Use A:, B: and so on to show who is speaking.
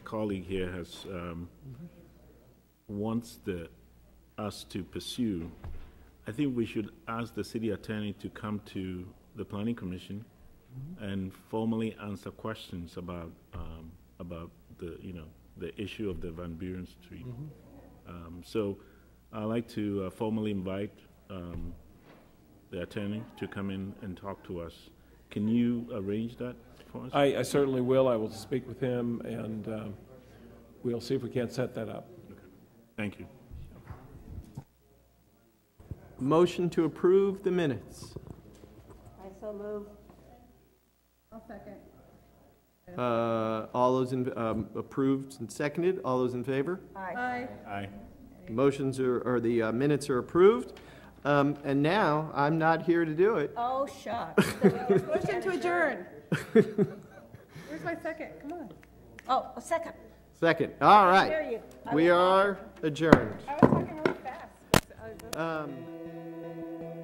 A: colleague here has, um, wants the, us to pursue, I think we should ask the city attorney to come to the planning commission and formally answer questions about, um, about the, you know, the issue of the Van Buren Street. Um, so I'd like to uh, formally invite, um, the attorney to come in and talk to us. Can you arrange that for us?
B: I, I certainly will. I will speak with him, and um, we'll see if we can't set that up.
A: Thank you.
C: Motion to approve the minutes.
D: I so move. I'll second.
C: Uh, All those in, um, approved and seconded, all those in favor?
D: Aye.
A: Aye.
C: Motions are, or the uh, minutes are approved. Um, And now, I'm not here to do it.
D: Oh, shucks. Motion to adjourn. Where's my second? Come on. Oh, a second.
C: Second, all
D: There
C: right.
D: you.
C: We are adjourned.
D: I was talking really fast.
C: Um,